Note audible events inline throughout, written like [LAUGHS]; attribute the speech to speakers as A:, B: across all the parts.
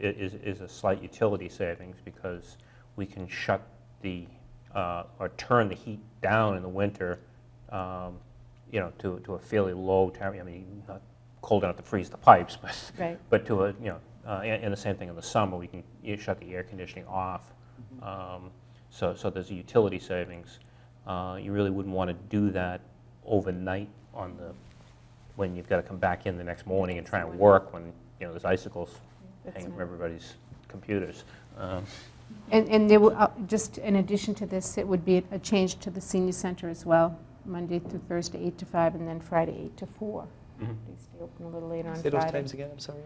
A: i- is, is a slight utility savings because we can shut the, uh, or turn the heat down in the winter, um, you know, to, to a fairly low temperature. I mean, not cold enough to freeze the pipes, [LAUGHS] but,
B: Right.
A: but to a, you know, uh, and, and the same thing in the summer, we can you shut the air conditioning off. Um, so, so there's a utility savings. Uh, you really wouldn't want to do that overnight on the, when you've got to come back in the next morning and try and work when, you know, there's icicles
B: That's
A: hanging from
B: nice.
A: everybody's computers. Um,
B: And, and there were, uh, just in addition to this, it would be a change to the senior center as well, Monday through Thursday, 8 to 5, and then Friday, 8 to 4. They
A: Mhm.
B: stay open a little later on
C: Mm-hmm. Say those
B: Friday.
C: times again, I'm sorry.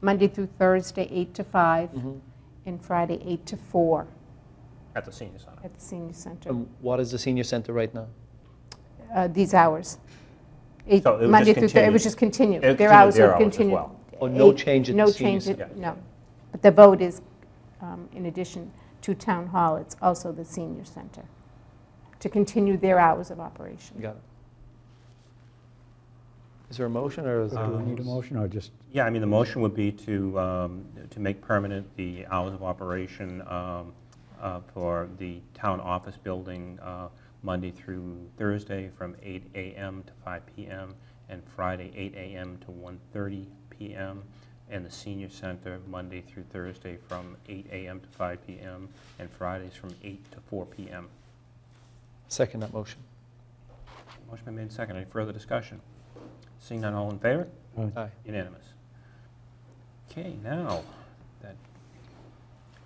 B: Monday through Thursday, 8 to 5,
C: Mhm.
B: and Friday, 8 to 4
A: At the senior center.
B: at the senior center,
C: And Uh, what is the senior center right now?
B: Uh, these hours. Eight-
A: So it would
B: Monday
A: just
B: through Thursday, it
A: continue.
B: would just continue.
A: It would
B: Their
A: continue
B: hours
A: their
B: would
A: hours as
B: continue.
A: well.
C: Oh, no
B: Eight-
C: change at the
B: no
C: senior
B: change at-
A: center.
B: No, but the vote is, um, in addition to town hall, it's also the senior center, to continue their hours of operation.
C: Got it. Is there a motion or is?
D: Do we need a motion or just,
A: Yeah, I mean, the motion would be to, um, to make permanent the hours of operation um, uh, for the town office building uh, Monday through Thursday from 8 AM to 5 PM, and Friday, 8 AM to 1:30 PM, and the senior center Monday through Thursday from 8 AM to 5 PM, and Fridays from 8 to 4 PM.
C: Second that motion.
A: Motion been made and seconded. Any further discussion? Seeing none, all in favor?
D: uh,
C: Aye.
A: Unanimous. Okay, now, that,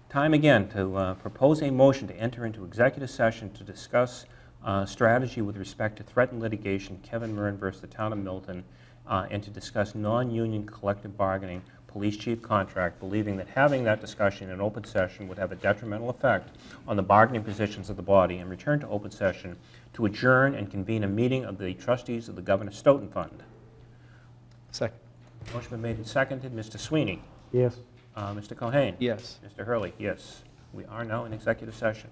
A: time again to uh, propose a motion to enter into executive session to discuss uh, strategy with respect to threatened litigation, Kevin Murray versus the town of Milton, uh, and to discuss non-union collective bargaining, police chief contract, believing that having that discussion in open session would have a detrimental effect on the bargaining positions of the body, and return to open session to adjourn and convene a meeting of the trustees of the Governor Stoughton Fund.
C: Second.
A: Motion been made and seconded. Mr. Sweeney?
D: yes.
A: Uh, Mr. Cohen?
C: Yes.
A: Mr. Hurley? Yes. We are now in executive session.